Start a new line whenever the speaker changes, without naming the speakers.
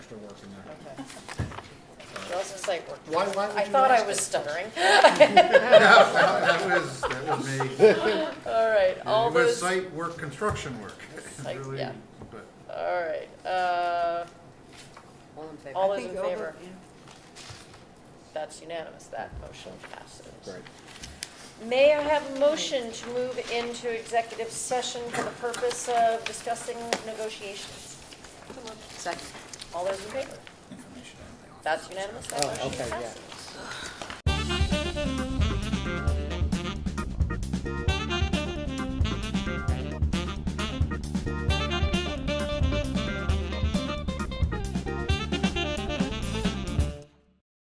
extra work in there.
Okay. Girls in site work.
Why, why would you?
I thought I
ask
was
us?
stuttering.
No, that that was, that was me.
All right, all
It was
those, all
site work, construction work. It's
Site,
really-
yeah.
But
right, uh,
All in favor?
All
I
those
think
in
over-
favor.
yeah.
that's unanimous, that motion passes.
Great.
May I have a motion to move into executive session for the purpose of discussing negotiations?
Second.
All those in favor?
Information. I don't think.
That's unanimous, that
Oh,
motion
okay, yeah.
passes.